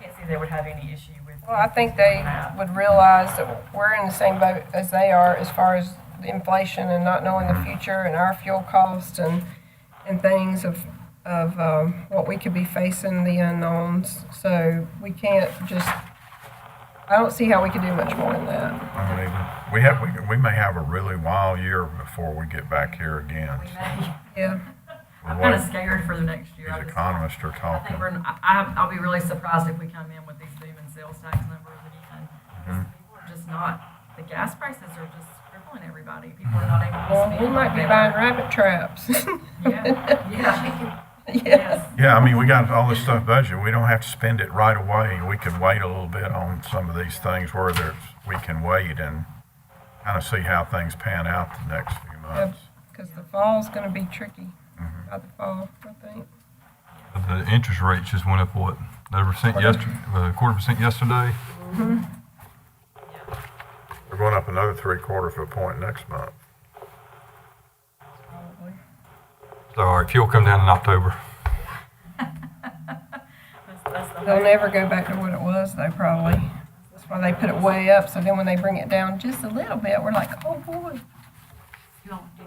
can't see they would have any issue with. Well, I think they would realize that we're in the same boat as they are as far as the inflation and not knowing the future and our fuel costs and, and things of, of um, what we could be facing, the unknowns. So we can't just, I don't see how we could do much more than that. I mean, we have, we, we may have a really wild year before we get back here again. We may. Yeah. I'm What kind of scared for the next year. These I just- economists are I think talking. we're, I, I'm- I'll be really surprised if we come in with these boom and sales tax numbers again. Mm-hmm. Because people are just not, the gas prices are just crippling everybody. People are not able to Well, spend. we might be buying rabbit traps. Yeah, yeah, Yes. yes. Yeah, I mean, we got all this stuff budgeted. We don't have to spend it right away. We could wait a little bit on some of these things where there's, we can wait and kind of see how things pan out the next few months. Because the fall's going to be tricky by the fall, I think. The interest rate just went up, what, another percent yesterday, uh, a quarter percent yesterday? We're going up another three quarters of a point next month. Probably. So our fuel come down in October. That's- that's the They'll hope. never go back to what it was though, probably. That's why they put it way up, so then when they bring it down just a little bit, we're like, oh boy. You don't do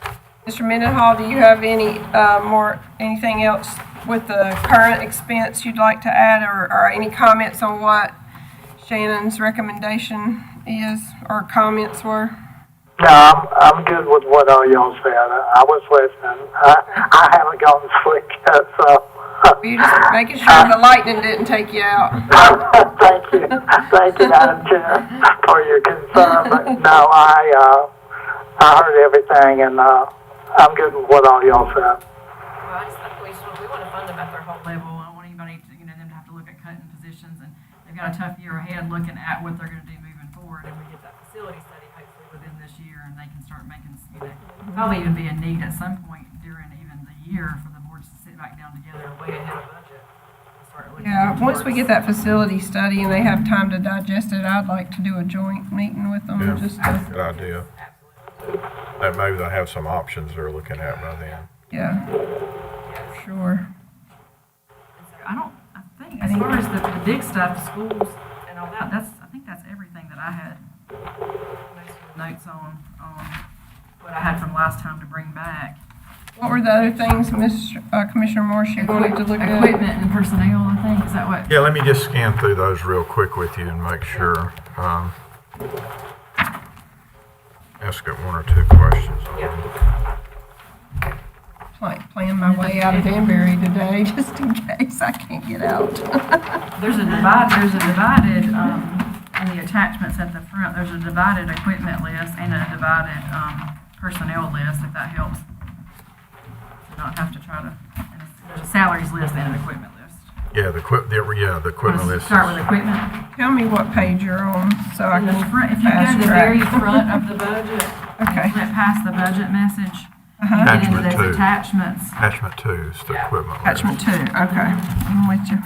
that. Mr. Mendenhall, do you have any, uh, more, anything else with the current expense you'd like to add, or, or any comments on what Shannon's recommendation is, or comments were? No, I'm, I'm good with what all y'all said. I, I was listening. I, I haven't gotten slick yet, so. We're just making sure the lightning didn't take you out. Thank you. Thank you, Madam Chair, for your concern. But no, I, uh, I heard everything and, uh, I'm good with what all y'all said. Well, I just think we should, we want to fund them at their whole level. I don't want anybody to, you know, them to have to look at cutting positions and they've got a tough year ahead looking at what they're gonna do moving forward. And we get that facility study hopefully within this year and they can start making, you know, probably even be a need at some point during even the year for the boards to sit back down together and weigh ahead of budget. and start looking Yeah, once we get towards- that facility study and they have time to digest it, I'd like to do a joint meeting with them, Yeah. just to Good idea. That maybe they'll have some options they're looking at by then. Yeah, sure. So I don't, I think, as far as the, the big stuff, schools and all that, that's, I think that's everything that I had notes on, on what I had from last time to bring back. What were the other things, Mr. uh, Commissioner Morse, you wanted to look at? Equipment and personnel, I think, is that what? Yeah, let me just scan through those real quick with you and make sure. um, Ask it one or two questions. on it. Pla- Playing my way out of Danbury today, just in case I can't get out. There's a divide, there's a divided, um, in the attachments at the front, there's a divided equipment list and a divided, um, personnel list, if that helps. To Not have to try to, and it's- there's a salaries list and an equipment list. Yeah, the equip, the- yeah, Want the equipment to list. start with is- equipment? Tell me what page you're on, so I In the can front, if you go to fast the very track. front of the budget, Okay. flip past the budget message, and get into Attachment two. those attachments. Attachment two is the equipment list. Attachment two, okay, I'm with you.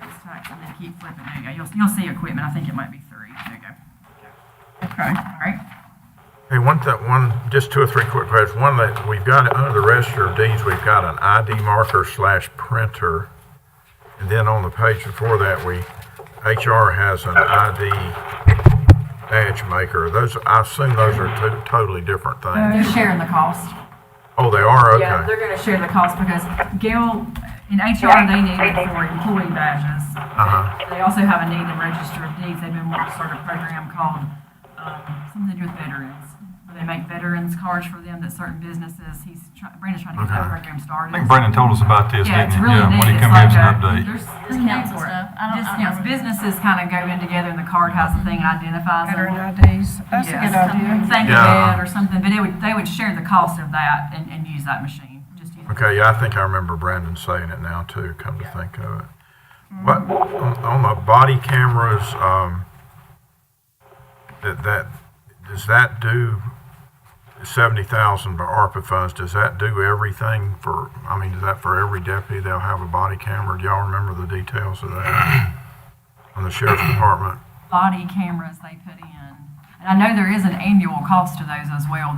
Sales tax, and then keep flipping, there you go, you'll, you'll see equipment, I think it might be three, there you go. Okay, All right, Hey, one thing, one, just two or three quick questions. One that we've got, under the register of deeds, we've got an ID marker slash printer. And then on the page before that, we, HR has an ID badge maker. Those, I assume those are two totally different things. they're sharing the cost. Oh, they are, Yeah, okay. they're gonna share the cost because Gail, in HR, they need it for employee badges. Uh-huh. They also have a need in register of deeds. They've been wanting to start a program called, um, something to do with veterans. Where they make veterans cards for them that certain businesses, he's trying, Brandon's trying to get that Okay. program started. I think Brandon told us about this, Yeah, didn't it's he? really Yeah, neat. when he It's come give like us an a- update. There's Discounts discounts and for it. stuff. I don't- I don't Discounts. remember. Businesses kind of go in together and the card has a thing and identifies them. veteran IDs, that's a Yes. good idea. Thank you, Yeah. Ed, or something, but it would, they would share the cost of that and, and use that machine, just use. Okay, yeah, I think I remember Brandon saying it now too, come to think of it. What, on, on the body cameras, um, that, that, does that do seventy thousand for ARPA funds, does that do everything for, I mean, is that for every deputy, they'll have a body camera? Do y'all remember the details of that? On the sheriff's department? body cameras they put in. And I know there is an annual cost to those as well